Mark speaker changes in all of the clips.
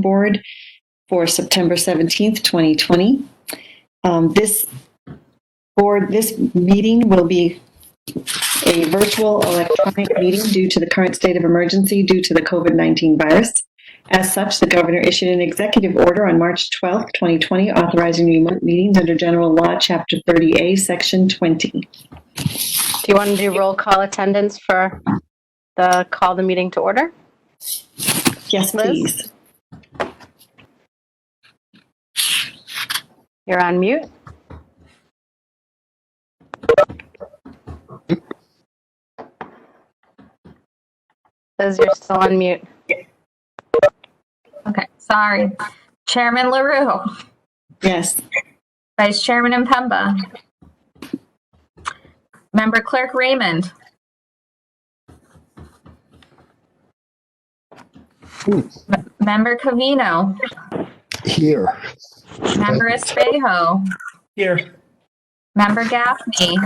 Speaker 1: Board for September 17th, 2020. Um, This board, this meeting will be a virtual electronic meeting due to the current state of emergency due to the COVID-19 virus. As such, the governor issued an executive order on March 12, 2020, authorizing remote meetings under General Law, Chapter 30A, Section 20.
Speaker 2: Do you want to do roll call attendance for the call the meeting to order?
Speaker 1: Yes,
Speaker 2: Liz?
Speaker 1: please.
Speaker 2: You're on mute. Liz, you're still on mute.
Speaker 3: Okay, sorry. Chairman LaRue,
Speaker 1: Yes.
Speaker 3: Vice Chairman Impemba. Member Clerk Raymond. M- Member Covino,
Speaker 4: Here.
Speaker 3: Member Espejo,
Speaker 5: Here.
Speaker 3: Member Gaffney,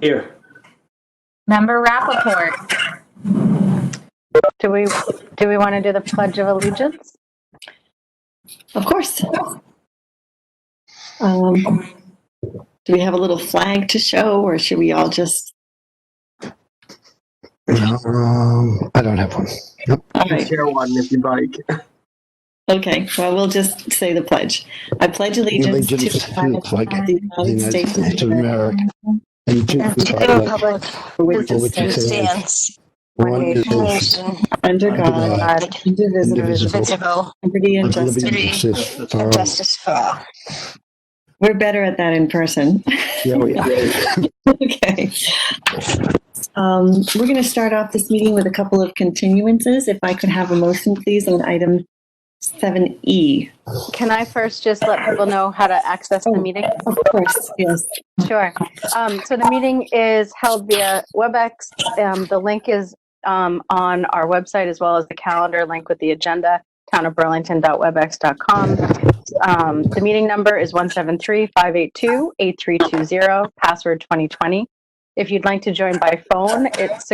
Speaker 5: Here.
Speaker 3: Member Rappaport.
Speaker 2: Do we, do we want to do the pledge of allegiance?
Speaker 1: Of course. Um, do we have a little flag to show, or should we all just?
Speaker 4: Um, I don't have one.
Speaker 1: All
Speaker 6: can
Speaker 1: right.
Speaker 6: share one if you'd like.
Speaker 1: Okay. Well, we'll just say the pledge. I pledge allegiance to
Speaker 4: Allegiance
Speaker 1: the
Speaker 4: to
Speaker 1: flag
Speaker 4: the flag
Speaker 1: of
Speaker 4: of
Speaker 1: the
Speaker 4: the
Speaker 1: United
Speaker 4: United
Speaker 1: States of
Speaker 4: States of
Speaker 1: America,
Speaker 4: America and to the republic
Speaker 7: Republic
Speaker 1: for which
Speaker 4: for
Speaker 1: it
Speaker 4: which it
Speaker 1: stands,
Speaker 4: stands,
Speaker 7: stands,
Speaker 4: one nation,
Speaker 7: nation,
Speaker 1: under
Speaker 4: under
Speaker 1: God,
Speaker 4: God,
Speaker 1: indivisible,
Speaker 4: indivisible,
Speaker 7: visible,
Speaker 1: liberty and
Speaker 4: with
Speaker 1: justice.
Speaker 4: liberty and justice for all.
Speaker 7: justice for all.
Speaker 1: We're better at that in person.
Speaker 4: Yeah, we are.
Speaker 1: Okay. Um, We're going to start off this meeting with a couple of continuances. If I could have a motion, please, on item E. 7E.
Speaker 2: Can I first just let people know how to access the meeting?
Speaker 1: Of course, yes.
Speaker 2: Sure. Um, so the meeting is held via WebEx. Um, the link is um, on our website as well as the calendar link with the agenda, townofburlington.webex.com. Um, the meeting number is 173-582-8320, password 2020. If you'd like to join by phone, it's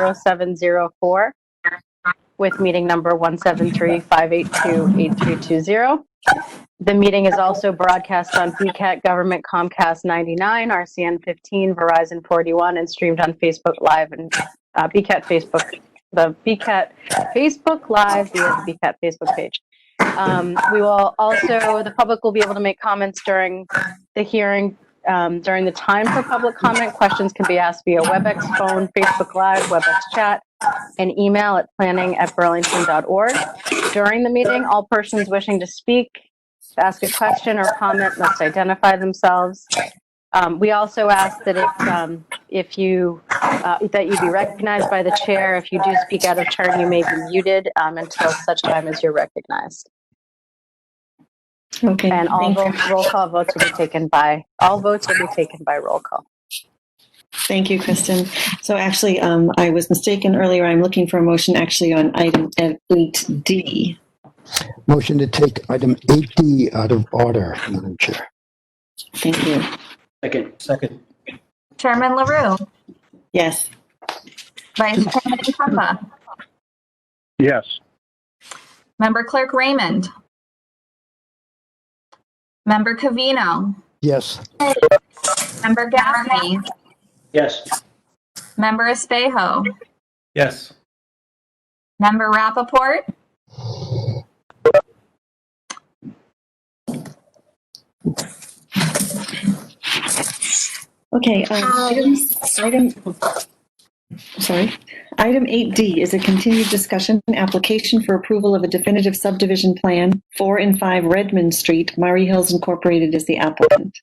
Speaker 2: 617-315-0704 with meeting number 173-582-8320. The meeting is also broadcast on BCAT Government Comcast 99, RCN 15, Verizon 41, and streamed on Facebook Live and uh, BCAT Facebook, the BCAT Facebook Live via the BCAT Facebook page. Um, we will also, the public will be able to make comments during the hearing. Um, during the time for public comment, questions can be asked via WebEx phone, Facebook Live, WebEx chat, and email at planning at burlington.org. During the meeting, all persons wishing to speak to ask a question or comment must identify themselves. Um, we also ask that if, um, if you, uh, that you be recognized by the chair. If you do speak out of turn, you may be muted um, until such time as you're recognized.
Speaker 1: Okay.
Speaker 2: And all
Speaker 1: thank-
Speaker 2: roll, roll call votes will be taken by, all votes will be taken by roll call.
Speaker 1: Thank you, Kristen. So actually, um, I was mistaken earlier. I'm looking for a motion actually on item 8D.
Speaker 4: Motion to take item 8D out of order, Madam Chair.
Speaker 1: Thank you.
Speaker 5: Second. Second.
Speaker 3: Chairman LaRue,
Speaker 1: Yes.
Speaker 3: Vice Chairman Impemba.
Speaker 8: Yes,
Speaker 3: Member Clerk Raymond. Member Covino,
Speaker 4: Yes,
Speaker 3: Member Gaffney,
Speaker 5: Yes.
Speaker 3: Member Espejo.
Speaker 5: Yes.
Speaker 3: Member Rappaport?
Speaker 1: Okay. um, items- Item, sorry. Item 8D is a continued discussion and application for approval of a definitive subdivision plan, 4 and 5 Redmond Street. Murray Hills Incorporated is the applicant.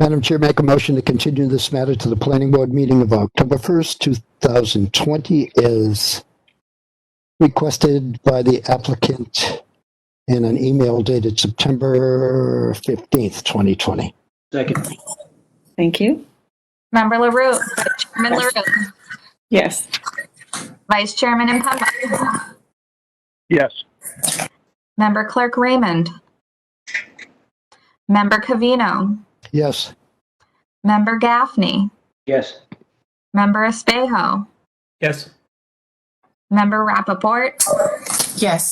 Speaker 4: Madam Chair, make a motion to continue this matter to the planning board meeting of October 1st, 2020 as requested by the applicant in an email dated September 15th, 2020.
Speaker 5: Second.
Speaker 1: Thank you.
Speaker 3: Member LaRue, Chairman LaRue,
Speaker 1: Yes.
Speaker 3: Vice Chairman Impemba,
Speaker 8: yes,
Speaker 3: Member Clerk Raymond, Member Covino,
Speaker 4: Yes.
Speaker 3: Member Gaffney,
Speaker 5: Yes.
Speaker 3: Member Espejo,
Speaker 5: Yes.
Speaker 3: Member Rappaport,
Speaker 6: Yes.